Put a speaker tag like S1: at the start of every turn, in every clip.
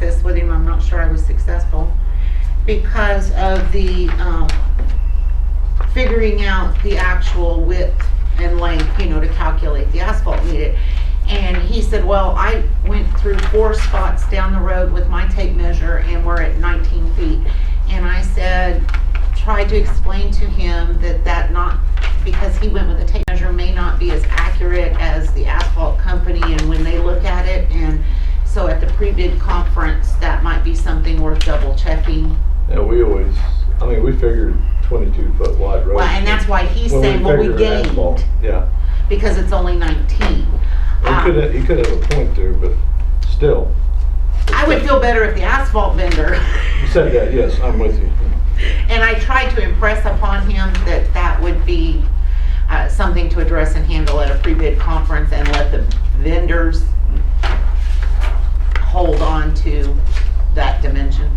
S1: this with him, I'm not sure I was successful, because of the, um, figuring out the actual width and length, you know, to calculate the asphalt needed. And he said, well, I went through four spots down the road with my tape measure and we're at nineteen feet. And I said, tried to explain to him that that not, because he went with a tape measure, may not be as accurate as the asphalt company and when they look at it. And so at the pre-bid conference, that might be something worth double checking.
S2: Yeah, we always, I mean, we figured twenty-two foot wide road.
S1: Well, and that's why he's saying, well, we gained.
S2: Yeah,
S1: because it's only 19.
S2: he
S1: Um,
S2: could, he could have a point there, but still.
S1: I would feel better if the asphalt vendor,
S2: You said that, yes, I'm with you.
S1: and I tried to impress upon him that that would be uh, something to address and handle at a pre-bid conference and let the vendors hold on to that dimension.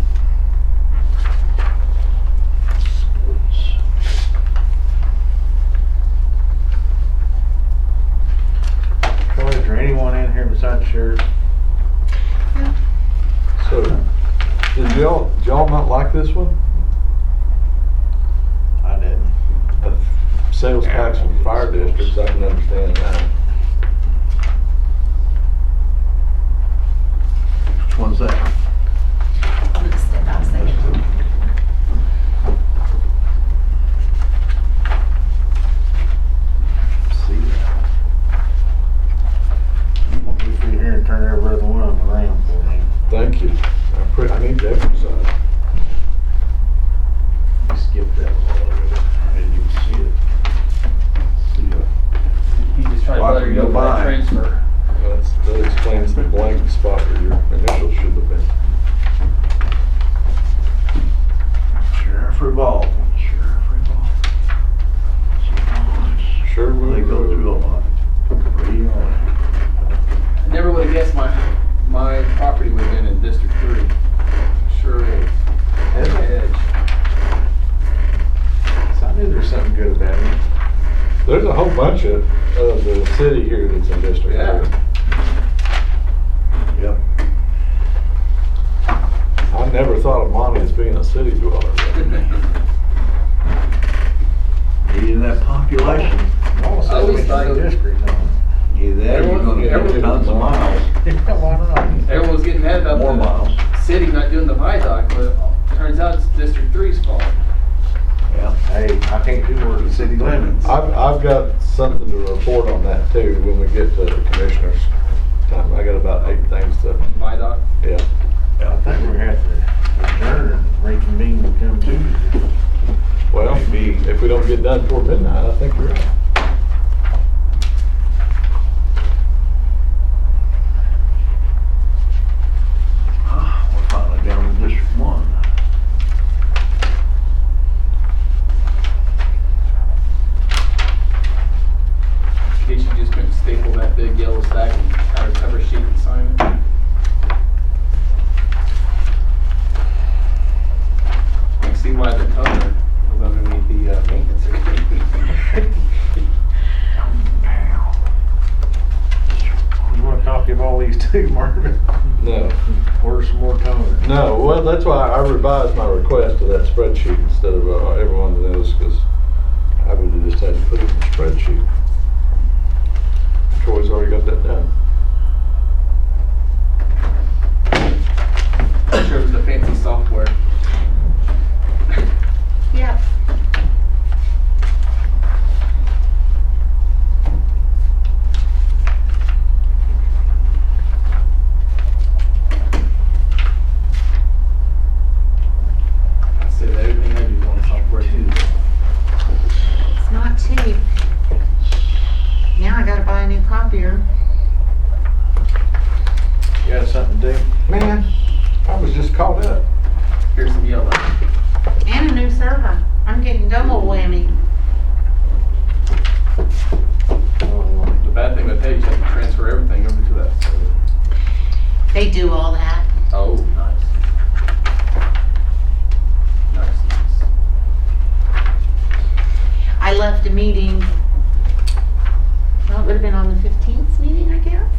S3: Troy, is there anyone in here besides sheriff?
S2: So, did y'all, did y'all not like this one?
S3: I didn't.
S2: Uh, Sales tax and fire districts, I can understand that.
S3: Which one's that?
S1: I'm gonna step out a second.
S3: See that? I'm gonna be through here and turn every other one of them around for me.
S2: Thank you. I pre, I need to exercise.
S3: You skipped that one already. I didn't even see it. See ya.
S4: He just tried
S2: Why
S4: to let
S2: don't
S4: her
S2: you go
S4: go for that
S2: buy?
S4: transfer.
S2: That's, that explains the blank spot where your initials should have been.
S3: Sheriff Revolt. Sheriff Revolt.
S2: Sure will.
S3: They go through a lot. Real.
S4: I never would have guessed my, my property would have been in District Three. Sure is.
S3: Is it?
S4: Edge.
S3: So I knew there's something good about it.
S2: There's a whole bunch of, of the city here that's in District
S4: Yeah.
S2: Three.
S3: Yep.
S2: I never thought of Monty as being a city dweller.
S3: Needing that population.
S4: I always thought it was-
S3: District, huh? Either that or you're gonna get tons of miles. Why
S4: Everyone was getting mad about
S3: More
S4: the
S3: miles,
S4: city not doing the MyDoc, but it turns out it's District Three's fault.
S3: yeah. Hey, I can't do work in city limits.
S2: I've, I've got something to report on that too when we get to the commissioners. Time, I got about eight things to,
S4: MyDoc.
S2: yeah.
S3: I think we're gonna have to adjourn and reconvene with them too.
S2: Well, if we don't get done before midnight, I think we're out.
S3: Ah, We're finally down to District One.
S4: In case you just couldn't staple that big yellow stack and have a cover sheet and sign it. I see why the toner was underneath the uh, maintenance agreement.
S3: You want a copy of all these too, Marvin?
S2: No,
S3: Where's some more toner?
S2: no, well, that's why I revised my request to that spreadsheet instead of uh, every one of those, because I would have just had to put it in the spreadsheet. Troy's already got that done.
S4: I'm sure it was the fancy software.
S1: Yep.
S4: I said everything I do is on software too.
S1: It's not cheap. Now I gotta buy a new copier.
S3: You got something to do?
S2: Man, I was just caught up.
S4: Here's some yellow.
S1: And a new server. I'm getting double whammy.
S3: Oh,
S4: The bad thing with that, you have to transfer everything over to that server.
S1: They do all that.
S4: Oh, nice. Nice, nice.
S1: I left a meeting, well, it would have been on the 15th meeting, I guess?